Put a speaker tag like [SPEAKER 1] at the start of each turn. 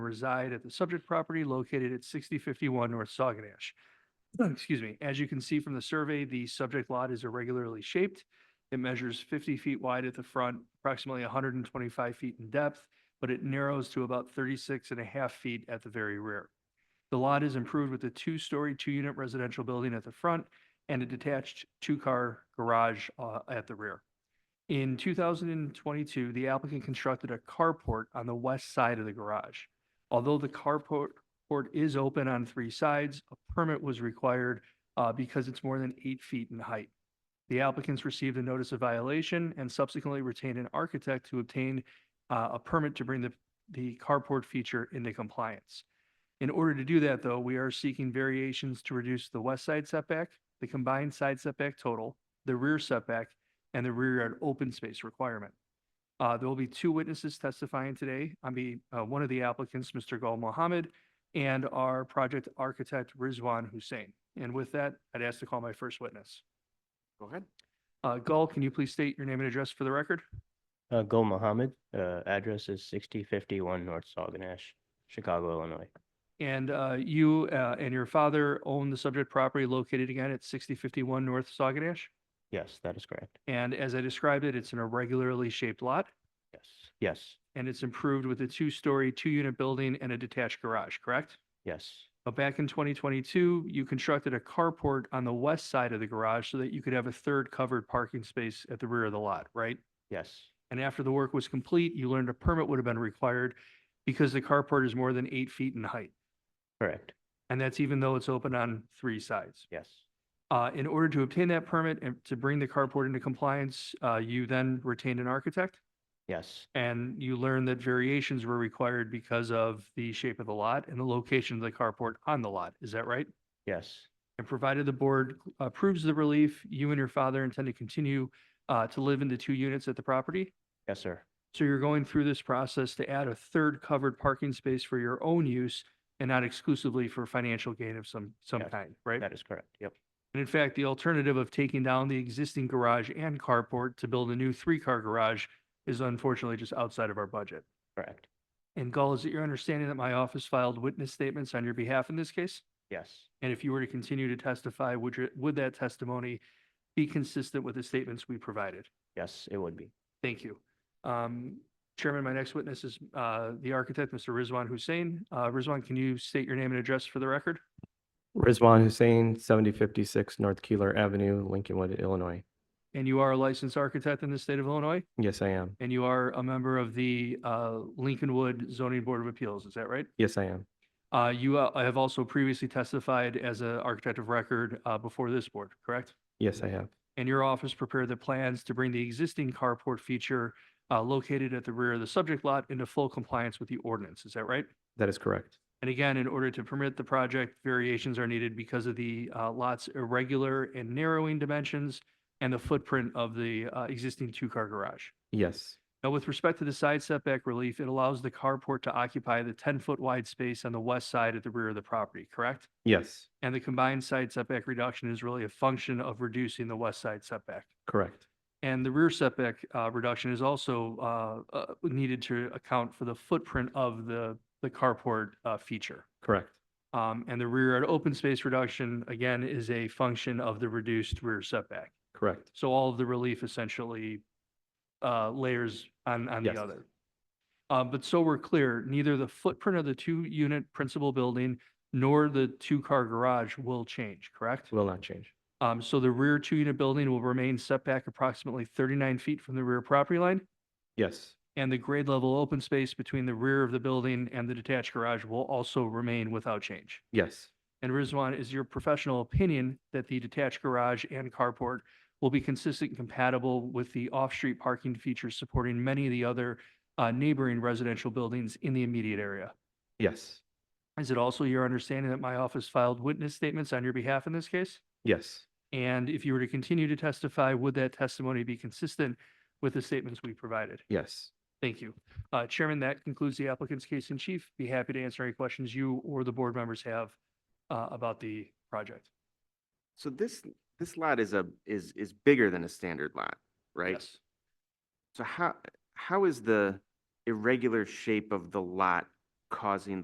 [SPEAKER 1] reside at the subject property located at sixty fifty-one North Saguenash. Excuse me. As you can see from the survey, the subject lot is irregularly shaped. It measures fifty feet wide at the front, approximately hundred and twenty-five feet in depth, but it narrows to about 36 and a half feet at the very rear. The lot is improved with a two-story, two-unit residential building at the front and a detached two-car garage uh, at the rear. In 2022, the applicant constructed a carport on the west side of the garage. Although the carport port is open on three sides, a permit was required uh, because it's more than eight feet in height. The applicants received a notice of violation and subsequently retained an architect who obtained uh, a permit to bring the, the carport feature into compliance. In order to do that, though, we are seeking variations to reduce the west side setback, the combined side setback total, the rear setback, and the rear yard open space requirement. Uh, there will be two witnesses testifying today. I mean, uh, one of the applicants, Mr. Gul Mohammed, and our project architect, Rizwan Hussein. And with that, I'd ask to call my first witness.
[SPEAKER 2] Go ahead.
[SPEAKER 1] Uh, Gul, can you please state your name and address for the record?
[SPEAKER 3] Uh, Gul Mohammed, uh, address is sixty fifty-one North Saguenash, Chicago, Illinois.
[SPEAKER 1] And, uh, you, uh, and your father own the subject property located again at sixty fifty-one North Saguenash?
[SPEAKER 3] Yes, that is correct.
[SPEAKER 1] And as I described it, it's an irregularly shaped lot
[SPEAKER 3] Yes, yes,
[SPEAKER 1] and it's improved with a two-story, two-unit building and a detached garage, correct?
[SPEAKER 3] yes,
[SPEAKER 1] But back in 2022, you constructed a carport on the west side of the garage so that you could have a third covered parking space at the rear of the lot, right?
[SPEAKER 3] yes,
[SPEAKER 1] And after the work was complete, you learned a permit would have been required because the carport is more than eight feet in height.
[SPEAKER 3] correct,
[SPEAKER 1] And that's even though it's open on three sides.
[SPEAKER 3] yes,
[SPEAKER 1] Uh, in order to obtain that permit and to bring the carport into compliance, uh, you then retained an architect?
[SPEAKER 3] yes,
[SPEAKER 1] And you learned that variations were required because of the shape of the lot and the location of the carport on the lot. Is that right?
[SPEAKER 3] yes,
[SPEAKER 1] And provided the board approves the relief, you and your father intend to continue uh, to live in the two units at the property?
[SPEAKER 3] yes, sir,
[SPEAKER 1] So you're going through this process to add a third covered parking space for your own use and not exclusively for financial gain of some, some
[SPEAKER 3] Yes,
[SPEAKER 1] kind, right?
[SPEAKER 3] that is correct, yep,
[SPEAKER 1] And in fact, the alternative of taking down the existing garage and carport to build a new three-car garage is unfortunately just outside of our budget.
[SPEAKER 3] correct,
[SPEAKER 1] And Gull, is it your understanding that my office filed witness statements on your behalf in this case?
[SPEAKER 3] yes,
[SPEAKER 1] And if you were to continue to testify, would you, would that testimony be consistent with the statements we provided?
[SPEAKER 3] yes, it would be,
[SPEAKER 1] Thank you. Um, Chairman, my next witness is, uh, the architect, Mr. Rizwan Hussein. Uh, Rizwan, can you state your name and address for the record?
[SPEAKER 4] Rizwan Hussein, seventy fifty-six North Keeler Avenue, Lincolnwood, Illinois.
[SPEAKER 1] And you are a licensed architect in the state of Illinois,
[SPEAKER 4] Yes, I am.
[SPEAKER 1] and you are a member of the, uh, Lincolnwood Zoning Board of Appeals, is that right?
[SPEAKER 4] Yes, I am.
[SPEAKER 1] Uh, you, uh, have also previously testified as an architect of record, uh, before this board, correct?
[SPEAKER 4] Yes, I have.
[SPEAKER 1] and your office prepared the plans to bring the existing carport feature uh, located at the rear of the subject lot into full compliance with the ordinance. Is that right?
[SPEAKER 4] That is correct.
[SPEAKER 1] And again, in order to permit the project, variations are needed because of the uh, lot's irregular and narrowing dimensions and the footprint of the uh, existing two-car garage.
[SPEAKER 4] Yes,
[SPEAKER 1] Now, with respect to the side setback relief, it allows the carport to occupy the 10-foot wide space on the west side at the rear of the property, correct?
[SPEAKER 4] yes,
[SPEAKER 1] And the combined side setback reduction is really a function of reducing the west side setback.
[SPEAKER 4] correct.
[SPEAKER 1] And the rear setback uh, reduction is also uh, uh, needed to account for the footprint of the, the carport uh, feature.
[SPEAKER 4] Correct.
[SPEAKER 1] Um, And the rear yard open space reduction, again, is a function of the reduced rear setback.
[SPEAKER 4] Correct.
[SPEAKER 1] So all of the relief essentially uh, layers on, on
[SPEAKER 4] Yes.
[SPEAKER 1] the other. Uh, But so we're clear, neither the footprint of the two-unit principal building nor the two-car garage will change, correct?
[SPEAKER 4] Will not change.
[SPEAKER 1] Um, so the rear two-unit building will remain set back approximately thirty-nine feet from the rear property line,
[SPEAKER 4] Yes,
[SPEAKER 1] and the grade level open space between the rear of the building and the detached garage will also remain without change.
[SPEAKER 4] yes,
[SPEAKER 1] And Rizwan, is your professional opinion that the detached garage and carport will be consistent and compatible with the off-street parking features supporting many of the other uh, neighboring residential buildings in the immediate area?
[SPEAKER 4] yes,
[SPEAKER 1] Is it also your understanding that my office filed witness statements on your behalf in this case?
[SPEAKER 4] yes,
[SPEAKER 1] And if you were to continue to testify, would that testimony be consistent with the statements we provided?
[SPEAKER 4] yes.
[SPEAKER 1] Thank you. Uh, Chairman, that concludes the applicant's case in chief. Be happy to answer any questions you or the board members have uh, about the project.
[SPEAKER 2] So this, this lot is a, is, is bigger than a standard lot, right?
[SPEAKER 1] Yes.
[SPEAKER 2] So how, how is the irregular shape of the lot causing